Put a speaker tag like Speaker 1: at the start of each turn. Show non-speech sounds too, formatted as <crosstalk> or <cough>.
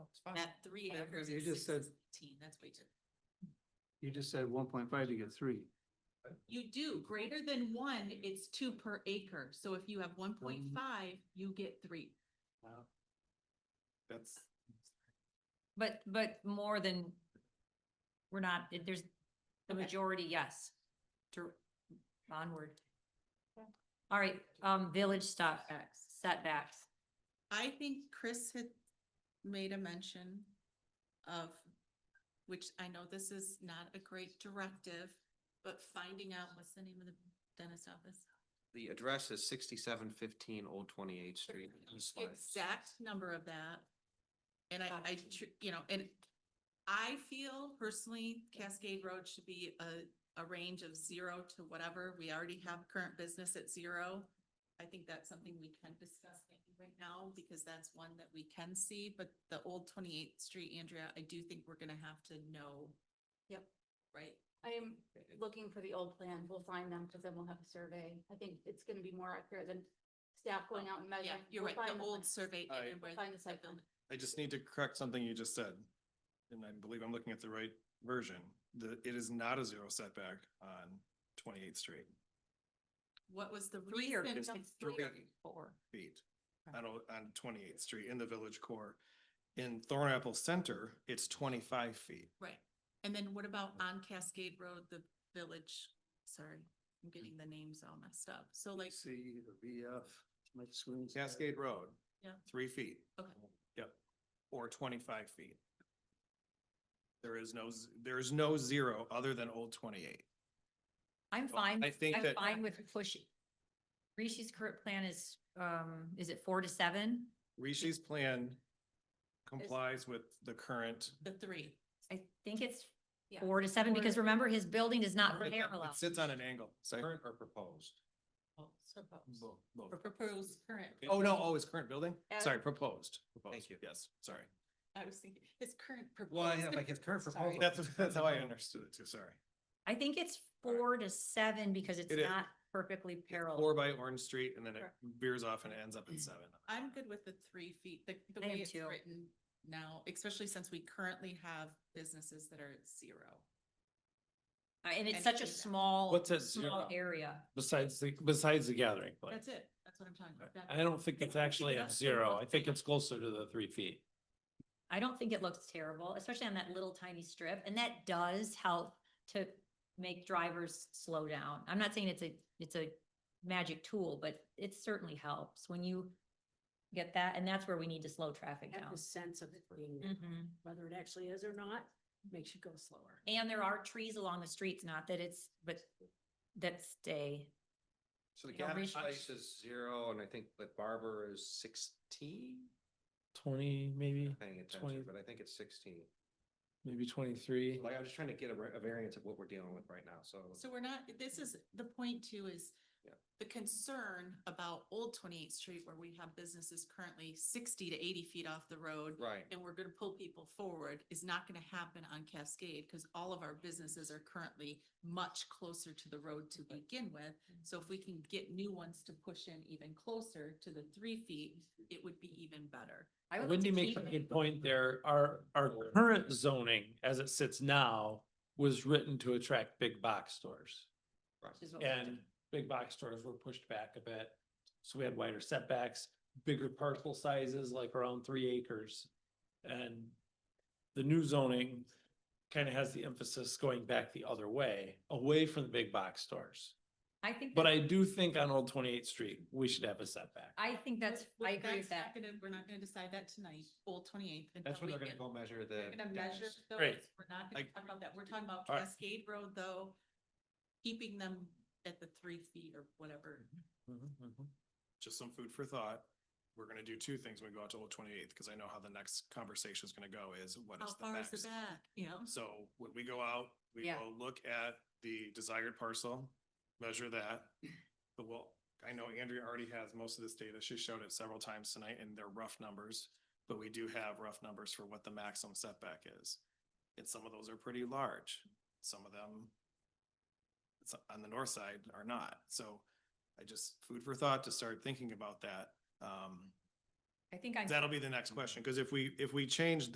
Speaker 1: At three
Speaker 2: Yeah,
Speaker 1: acres,
Speaker 2: you
Speaker 1: it's
Speaker 2: just
Speaker 1: six
Speaker 2: said-
Speaker 1: to fifteen, that's way too.
Speaker 2: You just said one point five, you get three.
Speaker 3: You do, greater than one, it's two per acre, so if you have one point
Speaker 2: Mm-hmm.
Speaker 3: five, you get three.
Speaker 2: That's.
Speaker 4: But, but more than, we're not, it- there's the
Speaker 1: Okay.
Speaker 4: majority, yes, to onward. All right, um, village stop, setbacks.
Speaker 1: I think Chris had made a mention of, which I know this is not a great directive, but finding out what's the name of the dentist office?
Speaker 5: The address is sixty-seven fifteen Old Twenty-Eighth Street. East Lyme.
Speaker 1: Exact number of that. And I, I, tr- you know, and I feel personally Cascade Road should be a, a range of zero to whatever. We already have current business at zero. I think that's something we can discuss maybe right now because that's one that we can see, but the old twenty-eighth street, Andrea, I do think we're gonna have to know.
Speaker 6: Yep.
Speaker 1: Right?
Speaker 6: I am looking for the old plan. We'll find them because then we'll have a survey. I think it's gonna be more accurate than staff going out and
Speaker 1: Yeah,
Speaker 6: measuring.
Speaker 1: you're
Speaker 6: We'll
Speaker 1: right,
Speaker 6: find
Speaker 1: the old
Speaker 6: plan.
Speaker 1: survey.
Speaker 7: All right.
Speaker 1: and where
Speaker 6: We'll find the
Speaker 1: the
Speaker 6: site plan.
Speaker 1: building-
Speaker 7: I just need to correct something you just said. And I believe I'm looking at the right version. The, it is not a zero setback on Twenty-Eighth Street
Speaker 1: What was the
Speaker 4: Three or
Speaker 1: reason?
Speaker 4: just
Speaker 1: of-
Speaker 4: three, four.
Speaker 7: feet. On, O- on Twenty-Eighth Street in the Village Core. In Thornapple Center, it's twenty-five feet.
Speaker 1: Right, and then what about on Cascade Road, the village, sorry, I'm getting the names all messed up, so like,
Speaker 2: C, the VF, my swings.
Speaker 7: Cascade Road.
Speaker 1: Yeah.
Speaker 7: Three feet.
Speaker 1: Okay.
Speaker 7: Yep. Or twenty-five feet. There is no, z- there is no zero other than Old Twenty-Eight.
Speaker 4: I'm
Speaker 7: Well,
Speaker 4: fine,
Speaker 7: I
Speaker 4: with-
Speaker 7: think
Speaker 4: I'm
Speaker 7: that-
Speaker 4: fine with pushing. Rishi's current plan is, um, is it four to seven?
Speaker 7: Rishi's plan complies with the current
Speaker 1: the three.
Speaker 4: I think it's
Speaker 6: Yeah.
Speaker 4: four to seven, because remember, his building is not
Speaker 7: Right,
Speaker 4: parallel.
Speaker 7: It sits on an angle. Sorry.
Speaker 5: Current or proposed?
Speaker 4: Oh,
Speaker 7: Both,
Speaker 1: Or
Speaker 7: both.
Speaker 1: proposed current,
Speaker 7: Oh, no, oh, it's current building?
Speaker 6: As-
Speaker 7: Sorry, proposed.
Speaker 5: Thank you.
Speaker 7: Yes, sorry.
Speaker 1: I was thinking, it's current proposed.
Speaker 5: Well, yeah, like it's current
Speaker 1: Sorry.
Speaker 5: proposal.
Speaker 7: That's, that's how I understood it too, sorry.
Speaker 4: I think it's
Speaker 7: All right.
Speaker 4: four to seven, because it's
Speaker 7: It is.
Speaker 4: not perfectly
Speaker 7: Four
Speaker 4: parallel.
Speaker 7: by Orange Street and then it
Speaker 6: Correct.
Speaker 7: veers off and ends up at seven.
Speaker 1: <laughs> I'm good with the three feet, the, the
Speaker 4: I am
Speaker 1: way it's
Speaker 4: too.
Speaker 1: written now, especially since we currently have businesses that are at zero.
Speaker 4: Uh, And it's
Speaker 1: and
Speaker 4: such
Speaker 1: do
Speaker 4: a
Speaker 1: that.
Speaker 4: small,
Speaker 8: What's a
Speaker 4: small
Speaker 8: zero
Speaker 4: area.
Speaker 8: besides the, besides the gathering place?
Speaker 1: That's it, that's what I'm talking about. That-
Speaker 8: I don't think it's actually a
Speaker 1: That's the
Speaker 8: zero.
Speaker 1: one
Speaker 8: I think
Speaker 1: thing.
Speaker 8: it's closer to the three feet.
Speaker 4: I don't think it looks terrible, especially on that little tiny strip, and that does help to make drivers slow down. I'm not saying it's a, it's a magic tool, but it certainly helps when you get that, and that's where we need to slow traffic
Speaker 9: have
Speaker 4: down.
Speaker 9: the sense of it being
Speaker 1: Mm.
Speaker 9: there,
Speaker 4: Mhm.
Speaker 9: whether it actually is or not, makes you go slower.
Speaker 4: And there are trees along the streets, not that it's, but that stay.
Speaker 5: So the
Speaker 4: You know,
Speaker 5: gathering
Speaker 4: Rishi-
Speaker 5: place is zero and I think the barber is sixteen?
Speaker 8: Twenty, maybe,
Speaker 5: Paying attention,
Speaker 8: 20.
Speaker 5: but I think it's sixteen.
Speaker 8: maybe twenty-three.
Speaker 5: Like, I'm just trying to get a, ra- a variance of what we're dealing with right now, so.
Speaker 1: So we're not, this is, the point too is
Speaker 5: Yeah.
Speaker 1: the concern about Old Twenty-Eighth Street where we have businesses currently sixty to eighty feet off the road.
Speaker 5: Right.
Speaker 1: and we're gonna pull people forward is not gonna happen on Cascade, because all of our businesses are currently much closer to the road to begin with. So if we can get new ones to push in even closer to the three feet, it would be even better.
Speaker 4: I would like
Speaker 8: Wendy
Speaker 4: to
Speaker 8: makes a
Speaker 4: keep-
Speaker 8: good point there. Our, our current zoning as it sits now was written to attract big box stores.
Speaker 5: Right.
Speaker 4: is what we
Speaker 8: And big box stores were pushed back a bit. So we had wider setbacks, bigger parcel sizes, like around three acres. And the new zoning kind of has the emphasis going back the other way, away from the big box stores.
Speaker 4: I think,
Speaker 8: But
Speaker 4: that-
Speaker 8: I do think on Old Twenty-Eighth Street, we should have a setback.
Speaker 4: I think that's,
Speaker 1: But- but
Speaker 4: I agree with
Speaker 1: that's not
Speaker 4: that.
Speaker 1: gonna- We're not gonna decide that tonight, Old Twenty-Eighth.
Speaker 5: That's when they're gonna go measure the.
Speaker 1: We're gonna measure
Speaker 5: gaps.
Speaker 1: those.
Speaker 8: Great.
Speaker 1: We're not gonna
Speaker 7: I-
Speaker 1: talk about that. We're talking about
Speaker 8: All right.
Speaker 1: Cascade Road, though. Keeping them at the three feet or whatever.
Speaker 8: Mm-hmm,
Speaker 7: Just some food for thought. We're gonna do two things when we go out to Old Twenty-Eighth, because I know how the next conversation is gonna go is what
Speaker 1: How
Speaker 7: is the
Speaker 1: far is
Speaker 7: max?
Speaker 1: the back, you know?
Speaker 7: So when we go out, we
Speaker 4: Yeah.
Speaker 7: will look at the desired parcel, measure that. But we'll I know Andrea already has most of this data. She showed it several times tonight and they're rough numbers. But we do have rough numbers for what the maximum setback is. And some of those are pretty large. Some of them it's on the north side are not. So I just food for thought to start thinking about that. Um,
Speaker 4: I think I'm.
Speaker 7: that'll be the next question, because if we, if we change